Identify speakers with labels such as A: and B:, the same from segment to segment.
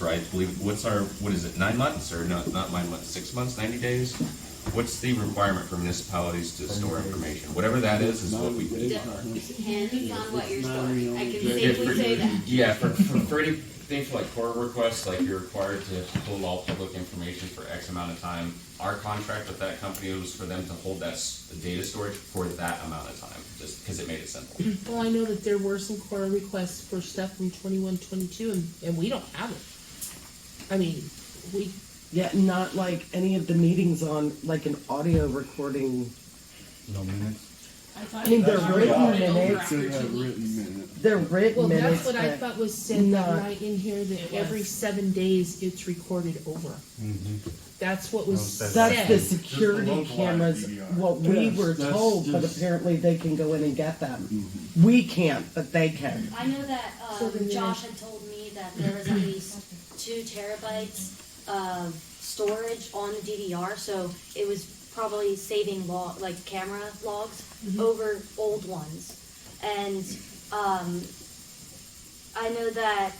A: right? Believe, what's our, what is it, nine months or not, not nine months, six months, ninety days? What's the requirement for municipalities to store information? Whatever that is, is what we.
B: It depends on what you're
C: It's not
B: storing, I can
C: really-
A: Yeah, for-
B: safely say that.
D: Yeah, for, for, for any things like FOIA requests, like you're required to hold all public information for X amount of time. Our contract with that company was for them to hold that s- data storage for that amount of time, just because it made it simple.
E: Well, I know that there were some quarter requests for stuff from twenty-one, twenty-two, and, and we don't have it. I mean, we,
F: Yet not like any of the meetings on like an audio recording.
C: No minutes?
F: I mean, they're written minutes.
C: They have written minutes.
F: They're written
E: well,
F: minutes.
E: that's what I
F: but-
E: thought was said
F: not-
E: that night in here, that every seven days it's recorded over.
G: Mm-hmm.
E: That's what was
G: No,
F: That's the
E: said.
F: security
C: localized
F: cameras.
C: DVR.
F: What we
C: Yes,
F: were
C: that's
F: told, but
C: just-
F: apparently they can go in and get them. We can't, but they can.
B: I know that
E: So
B: um,
E: then
B: Josh
E: there's-
B: had told me that there was at least two terabytes of storage on the DDR, so it was probably saving log, like camera logs
E: Mm-hmm.
B: over old ones. And um, I know that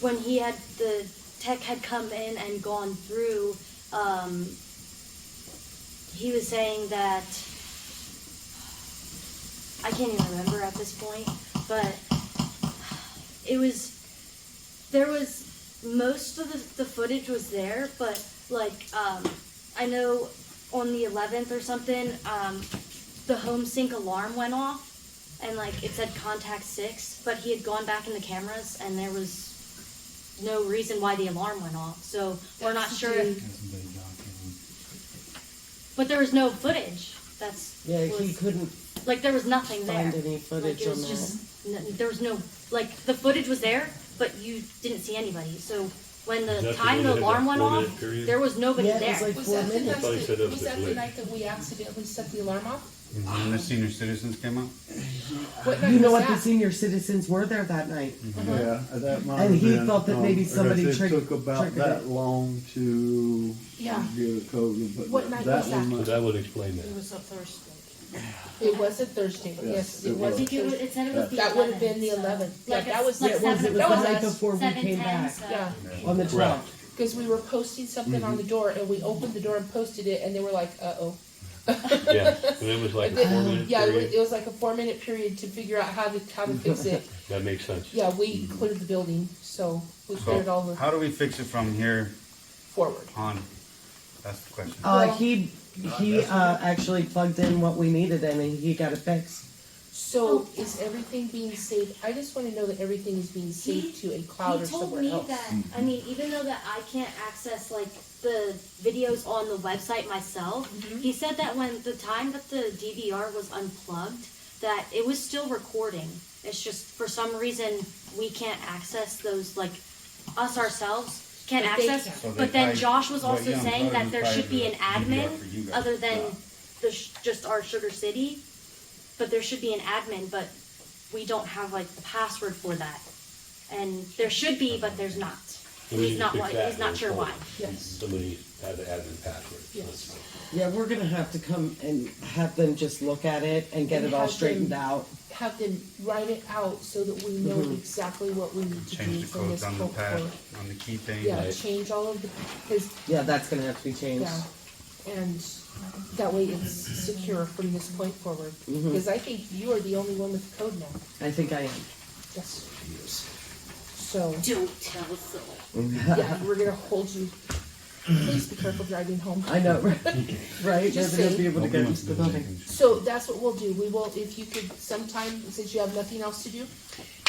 B: when he had the tech had come in and gone through, um, he was saying that. I can't even remember at this point, but it was there was most of the, the footage was there, but like um, I know on the 11th or something, um, the home sync alarm went off, and like it said contact six, but he had gone back in the cameras, and there was no reason why the alarm went off. So we're not sure, if, but there was no footage. That's
F: Yeah, he
B: was-
F: couldn't
B: like there was nothing there.
F: find any
B: Like
F: footage
B: it
F: on
B: was
F: that.
B: just, n- there was no, like, the footage was there, but you didn't see anybody, so when
H: Is
B: the
H: that the
B: time
H: one
B: the
H: that had
B: alarm
H: that
B: went
H: four-minute
B: off,
H: period?
B: there was nobody
F: Yeah, it was
B: there.
F: like
E: Was
F: four
E: that the
F: minutes.
E: night,
H: Probably set
E: that-
H: up
E: was
H: the
E: that the
H: glitch.
E: night that we accidentally set the alarm off?
G: When the senior citizens came out?
E: What night
F: You know
E: was
F: what? The
E: that?
F: senior citizens were there that night.
C: Yeah, that might
F: Uh-huh. And
C: have
F: he
C: been,
F: thought that
C: um,
F: maybe
C: because
F: somebody trick-
C: It took about
F: triggered
C: that
F: it.
C: long to
E: Yeah.
C: get a code, but
E: What night
C: that
E: was
C: one
E: that?
H: So
C: might-
H: that would explain that.
I: was a Thursday.
E: It was a Thursday,
C: Yes,
E: yes,
C: it
E: it
B: I
E: was. a
B: think it was,
E: Thursday.
B: it said it was the
E: That would have been the
B: 11th, so-
E: eleventh, yeah,
B: Like,
E: that was,
B: like
E: it was,
B: seven
E: it was
B: o'clock.
E: the
F: was
E: night
F: us. before we
B: Seven
F: came
B: ten,
F: back.
B: so-
E: Yeah,
F: On the
H: Correct.
F: twelfth.
E: because we were posting something on
H: Mm-hmm.
E: the door and we opened the door and posted it and they were like, uh-oh.
H: Yeah, and it was like
E: And
H: a
E: then-
H: four minute
E: Yeah, it was, it
H: period. Mm-hmm.
E: was like a four minute period to figure out how to, how to fix it.
H: That makes sense.
E: Yeah, we cleared the building, so we cleared all
G: So,
E: the
G: how do we fix it from here
E: forward.
G: on? That's the question.
F: Uh, he he uh, actually plugged in what we needed and he got it fixed.
E: So
B: Oh.
E: is everything being saved? I just wanna know that everything is being saved to a cloud
B: He
E: or
B: told
E: somewhere
B: me
E: else.
B: that I mean, even though that I can't access like the videos on the website myself,
E: Mm-hmm.
B: he said that when the time that the DVR was unplugged, that it was still recording. It's just for some reason we can't access those like us ourselves can't
E: But they
B: access.
E: can.
G: So they
B: but then
G: probably-
B: Josh was
G: well,
B: also
G: yeah, I'm
B: saying
G: sorry,
B: that
G: we
B: there
G: probably
B: should be an
G: do that for you
B: admin
G: guys.
B: other than
G: Yeah.
B: the sh- just our Sugar City, but there should be an admin, but we don't have like the password for that. And there should be, but there's not.
H: We need
B: He's
H: to
B: not
H: fix
B: why,
H: that
B: he's not
H: and
B: sure why.
H: install it.
E: Yes,
H: Somebody had to add the password.
E: Yes.
F: Yeah, we're gonna have to come and have them just look at it and get
E: And
F: it all
E: have them-
F: straightened out.
E: have them write it out so that we know exactly what we need to do
G: Change the
E: from this
G: codes on the
E: code
G: pad,
E: forward.
G: on the key thing.
E: Yeah,
H: Right.
E: change all of the, his,
F: Yeah, that's gonna have to be changed.
E: yeah, and that way it's secure from this point forward. Because I think you are the only one with code now.
F: I think I am.
E: Yes. So,
B: Don't tell so.
E: yeah, we're gonna hold you, please be careful driving home.
F: I know, right? right?
E: Just
F: They're gonna
E: saying.
F: be able to go into the building.
E: So that's what we'll do. We will, if you could sometime, since you have nothing else to do,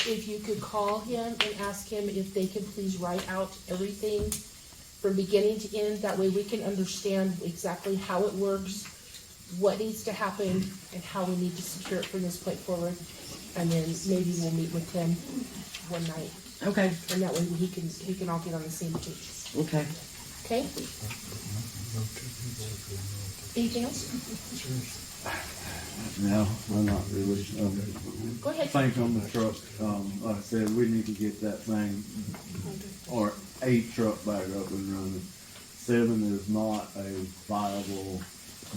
E: if you could call him and ask him if they can please write out everything from beginning to end, that way we can understand exactly how it works, what needs to happen, and how we need to secure it from this point forward. And then maybe we'll meet with him one night,
F: Okay,
E: and that way he can, he can all get on the same page,
F: okay.
E: okay? Anything else?
C: No, I'm not really. um,
E: Go ahead.
C: Think on the truck, um, like I said, we need to get that thing, or a truck back up and running. Seven is not a viable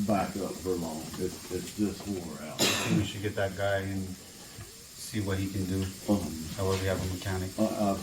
C: backup for long, it's, it's just wore out.
G: I think we should get that guy and see what he can do,
C: Um,
G: however we have a mechanic.
C: I, I've